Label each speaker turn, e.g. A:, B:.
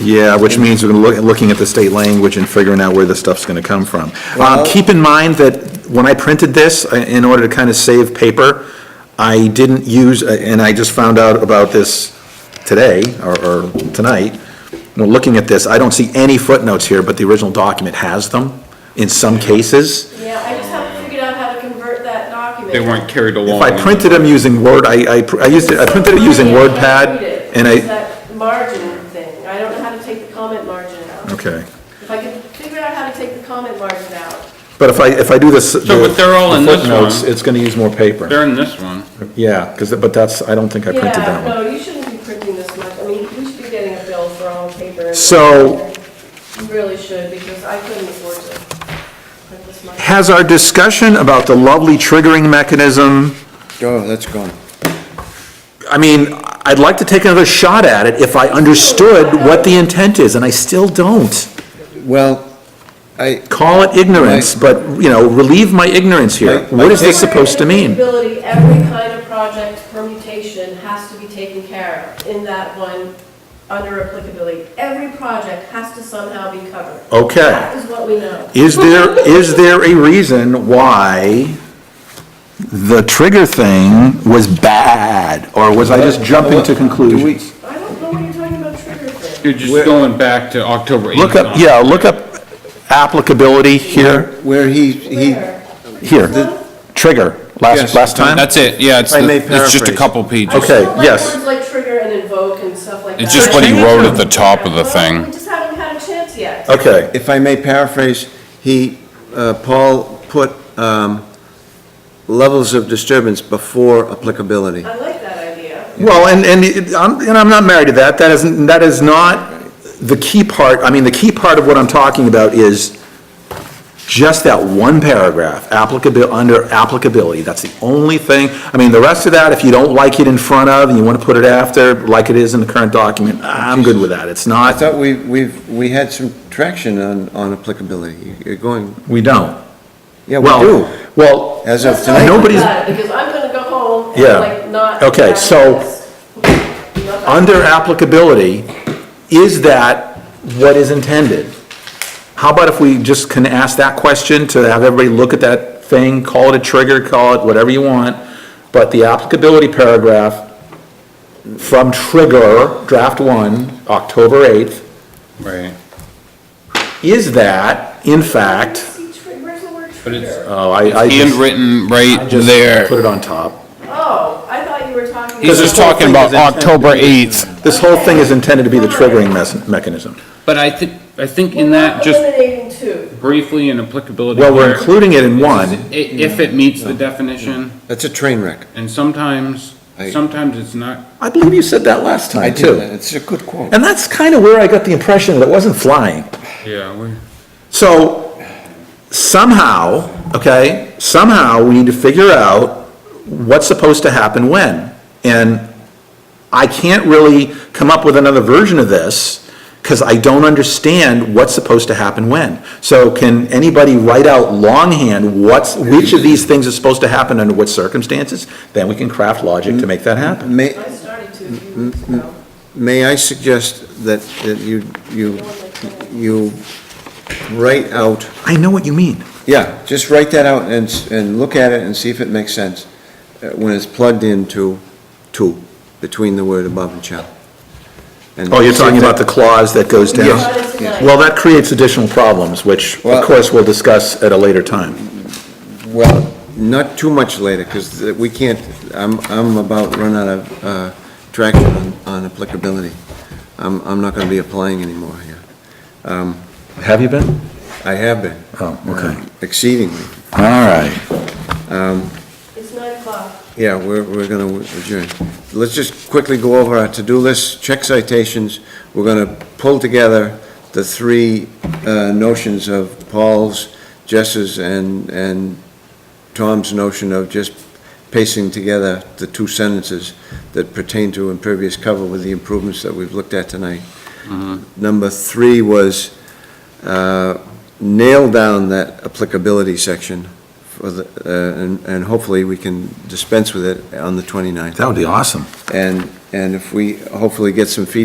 A: Yeah, which means we're loo- looking at the state language and figuring out where the stuff's going to come from. Um, Keep in mind that when I printed this, I- in order to kind of save paper, I didn't use, uh, and I just found out about this today, or- or tonight, When looking at this, I don't see any footnotes here, but the original document has them in some cases.
B: Yeah, I just haven't figured out how to convert that document.
C: They weren't carried
A: If
C: along.
A: I printed them using Word, I, I pr- I used it, I printed it using
B: Somebody
A: WordPad,
B: read it.
A: and
B: It's
A: I,
B: that margin thing, I don't know how to take the comment margin out.
A: okay.
B: If I could figure out how to take the comment margin out,
A: But if I, if I do this.
C: So, but they're all in this
A: footnotes,
C: one.
A: It's gonna use more paper.
C: They're in this one.
A: Yeah, because, but that's, I don't think I printed
B: yeah,
A: that one.
B: no, you shouldn't be printing this much, I mean, you should be getting a bill for all the paper. and-
A: So-
B: You really should, because I couldn't afford to print this much.
A: Has our discussion about the lovely triggering mechanism,
D: Oh, that's gone.
A: I mean, I'd like to take another shot at it if I understood what the intent is, and I still don't.
D: Well, I,
A: Call it ignorance, but, you know, relieve my ignorance here.
D: Right.
A: What is this supposed to
B: Where in
A: mean?
B: feasibility, every kind of project permutation has to be taken care of in that one under applicability. Every project has to somehow be covered.
A: Okay.
B: That is what we know.
A: Is there, is there a reason why the trigger thing was bad? Or was I just jumping to conclusions?
B: I don't know what you're talking about trigger thing.
C: You're just going back to October 8th.
A: Look up, yeah, look up applicability here,
D: where he, he,
B: Where?
A: here, trigger, last,
D: Yes.
A: last time?
E: That's it, yeah, it's,
D: I may
E: the- it's just a
D: paraphrase.
E: couple pages.
B: I just don't
A: Okay,
B: like
A: yes.
B: Words like trigger and invoke and stuff like that.
E: It's just what he wrote at the top of the
B: Well,
E: thing.
B: We just haven't had a chance yet.
A: Okay,
D: if I may paraphrase, he, uh, Paul put um, levels of disturbance before applicability.
B: I like that idea.
A: well, and, and it- I'm, and I'm not married to that, that isn't, that is not the key part, I mean, the key part of what I'm talking about is just that one paragraph, applicability, under applicability, that's the only thing. I mean, the rest of that, if you don't like it in front of and you want to put it after, like it is in the current document, I'm good with that, it's
D: I
A: not,
D: thought we, we've, we had some traction on, on applicability. You're going,
A: we don't.
D: yeah, we
A: Well,
D: do,
A: Well,
D: as of
B: Let's not do
D: tonight.
A: Nobody's-
B: that, Because I'm gonna go home and
A: Yeah.
B: like not.
A: Okay,
B: have
A: so
B: this. Not-
A: under applicability, is that what is intended? How about if we just can ask that question to have everybody look at that thing, call it a trigger, call it whatever you want, but the applicability paragraph from trigger, draft one, October 8th,
C: Right.
A: is that, in
B: I
A: fact,
B: see tri- Where's the word
C: But it's-
B: trigger?
A: oh, I, I just,
E: Handwritten right
A: just put
E: there.
A: it on top.
B: Oh, I thought you were talking.
E: He's
B: about-
E: just talking about October 8th.
A: This whole thing is intended to be the triggering mes- mechanism.
C: But I think, I think
B: We're
C: in that,
B: not
C: just
B: eliminating two.
C: briefly in applicability.
A: Well, we're
C: where-
A: including it in one,
C: I- If it meets the definition,
D: That's a train wreck.
C: and sometimes,
D: I-
C: sometimes it's not,
A: I believe you said that last
D: I
A: time,
D: do.
A: too.
D: It's a good quote.
A: And that's kind of where I got the impression that it wasn't flying.
C: yeah, we-
A: So somehow, okay, somehow we need to figure out what's supposed to happen when. And I can't really come up with another version of this because I don't understand what's supposed to happen when. So can anybody write out longhand what's, which of these things is supposed to happen under what circumstances? Then we can craft logic to make that happen.
D: May,
B: I started two a few weeks ago.
D: May I suggest that, that you, you, Mm-hmm. you write out,
A: I know what you mean.
D: yeah, just write that out and, s- and look at it and see if it makes sense uh, when it's plugged into two, between the word above and shall. And
A: Oh, you're talking
D: see if
A: about the clause that goes down?
D: Yes.
B: Started tonight.
A: Well, that creates additional problems, which, of
D: Well-
A: course, we'll discuss at a later time.
D: that- Well, not too much later, because we can't, I'm, I'm about run out of, uh, traction on, on applicability. I'm, I'm not gonna be applying anymore here. Um,
A: Have you been?
D: I have been.
A: Oh, okay.
D: uh, Exceedingly.
A: All right.
B: It's nine o'clock.
D: Yeah, we're, we're gonna adjourn. Let's just quickly go over our to-do list, check citations. We're gonna pull together the three uh, notions of Paul's, Jess's, and, and Tom's notion of just pacing together the two sentences that pertain to impervious cover with the improvements that we've looked at tonight. Number three was uh, nail down that applicability section for the, uh, and, and hopefully we can dispense with it on the 29th.
A: That would be awesome.
D: And, and if we hopefully get some feedback